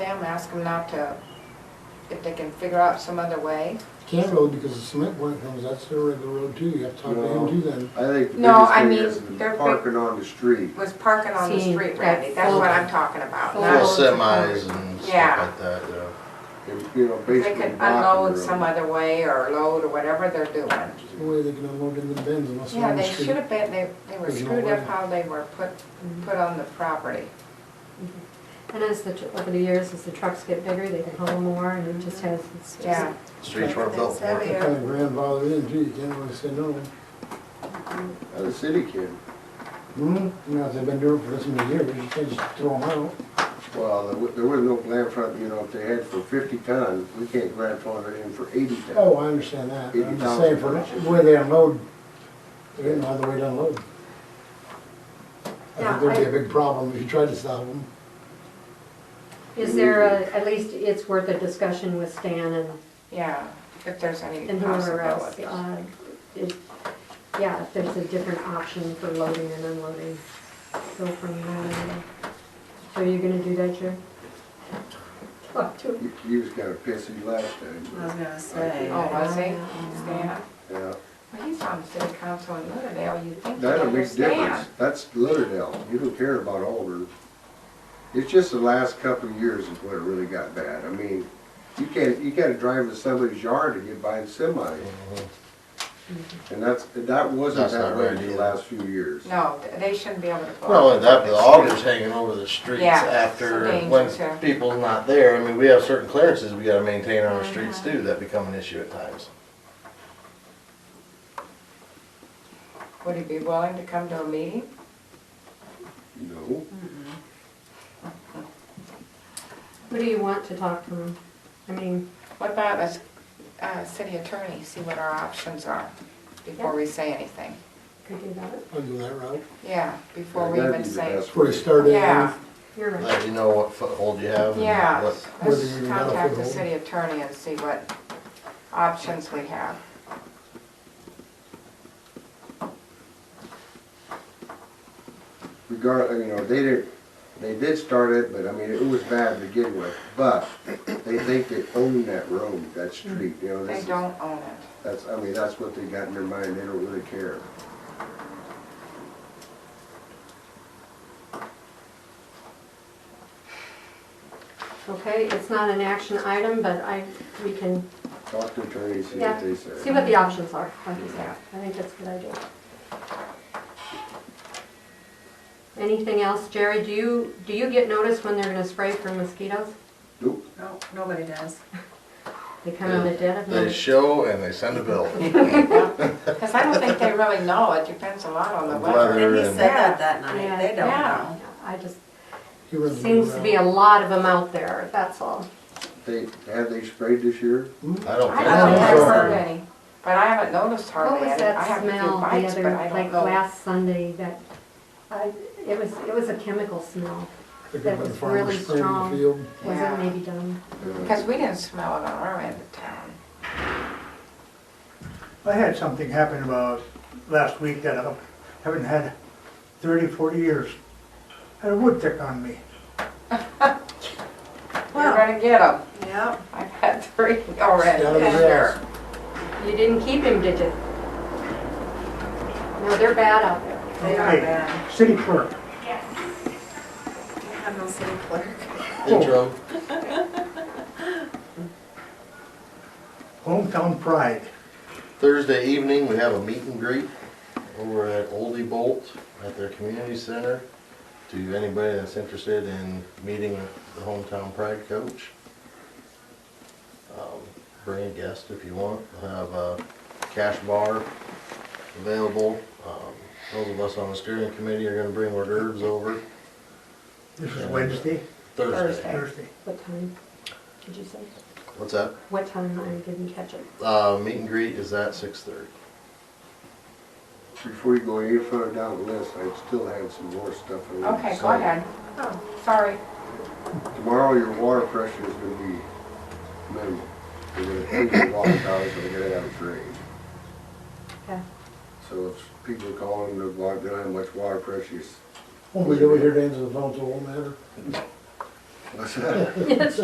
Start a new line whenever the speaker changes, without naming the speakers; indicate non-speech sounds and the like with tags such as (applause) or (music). them, ask them not to, if they can figure out some other way.
Kent Road, because the cement plant comes, that's their regular road too, you have to talk to
No.
him too then.
I think
No, I
the
mean,
biggest thing
they're
is
big-
parking on the street.
Was parking on the
See,
street,
that
Randy, that's
full-
what I'm talking about.
full-
Well,
not-
semis and
Yeah.
stuff like that, yeah.
And, you know,
They could
basically blocking
unload
the
some
road.
other way or load or whatever they're doing.
No way they can unload in the bins unless they're
Yeah,
on the
they
street.
should have been, they, they were
There's no
screwed up
way.
how they were put, put on the property.
And as the, tr- over the years, as the trucks get bigger, they can haul more and it just has, it's just.
Yeah.
Streets were built for it.
They're kind of grandfathered in too, you can't really say no.
Uh, The city can,
Hmm, now, if they've been doing it for this many years, you can't just throw them out.
well, there wa- there was no plan for, you know, if they had for fifty ton, we can't grandfather in for eighty ton.
Oh, I understand that, but I'm just
80,000
saying, for
bucks.
where they unload, they didn't know the way to unload. I
Yeah,
think there'd
I-
be a big problem if you tried to stop them.
Is there a, at least it's worth a discussion with Stan and,
Yeah, if there's any
and whoever else.
possibility.
uh, if- Yeah, if there's a different option for loading and unloading, go from there. So you're gonna do that, Jer? Talk to him.
You- You was kinda pissy last time.
gonna say.
Oh, was he?
Yeah.
Stan?
Yeah,
Well, he's on city council in Lauderdale, you think he'd
that a big
understand.
difference. That's Lauderdale. You don't care about Auburn. It's just the last couple of years is when it really got bad. I mean, you can't, you gotta drive to somebody's yard to get by in semi. And that's, that wasn't
That's
that
not
way
right
in the
either.
last few years.
No, th- they shouldn't be able to. go
Not only
out.
that, but the augers hanging over the streets
Yeah,
after,
some danger
when
too.
people's not there, I mean, we have certain clearances we gotta maintain on our
Mm-hmm.
streets too, that become an issue at times.
Would he be willing to come to a meeting?
No.
Who do you want to talk to him? I mean,
What about us, uh, city attorney, see what our options are before we say anything?
could do that.
I'll do that route.
Yeah, before we
That'd
even
be the
say.
best
Where they
way.
started.
Yeah,
You're right.
Let you know what foothold you have and
yeah,
what,
Whether
let's
you got a
contact the
foothold.
city attorney and see what options we have.
regard, you know, they did, they did start it, but I mean, it was bad to begin with, but they think they own that road, that street, you know,
Mm. They
that's,
don't own it. (laughs)
that's, I mean, that's what they got in their mind, they don't really care.
Okay, it's not an action item, but I, we can
Talk to attorneys, see
Yeah,
what they
see
say.
what the options are, like you said. I think that's a good idea. Anything else, Jerry? Do you, do you get notice when they're gonna spray for mosquitoes?
Nope,
No, nobody does.
They come in the dead of
they
night?
show and they send
(laughs)
a bill.
Because I don't think they really know, it depends a lot on the weather.
Weather.
And he
and-
said that that night,
Yeah.
they don't
Yeah.
know.
I just,
He runs a
seems to
route.
be a lot of them out there, that's all.
they, have they sprayed this year?
I don't
I
think
don't think I've
so.
heard any, but I haven't noticed
What
hardly
was
any. I
that
have a few
smell the
bites, but
other,
I don't
like
know.
last Sunday that, I, it was, it was a chemical smell.
Like
that
when
was
farmers
really
spray in the
strong.
field.
Was
Yeah.
it maybe done?
Because we didn't smell it on our end of town.
I had something happen about last week that I haven't had 30, 40 years. Had a wood tick on me.
You're gonna get them.
Yep.
I've had three already.
Down the
this
grass.
year.
You didn't keep him, did you? No, they're bad out there.
They are
Hey,
bad.
City clerk,
I'm no city clerk.
Intro,
hometown pride.
Thursday evening, we have a meet and greet over at Oldie Bolt at their community center to anybody that's interested in meeting the hometown pride coach. Um, Bring a guest if you want, We'll have a cash bar available. Um, Those of us on the steering committee are gonna bring hors d'oeuvres over
This was Wednesday,
Thursday.
Thursday.
What time did you say?
What's that?
What time I didn't catch it?
Uh, meet and greet is at six thirty.
Before you go any further down the list, I still had some more stuff. I wanted to
Okay, go
say.
ahead. Oh, sorry.
Tomorrow, your water pressure is gonna be minimal. You're gonna take your water down, so you're gonna have a drain.
Okay.
So if people call in, the water, they don't have much water pressure, you s-
Won't be over here to answer the phone, so it won't matter.
(laughs) what's that?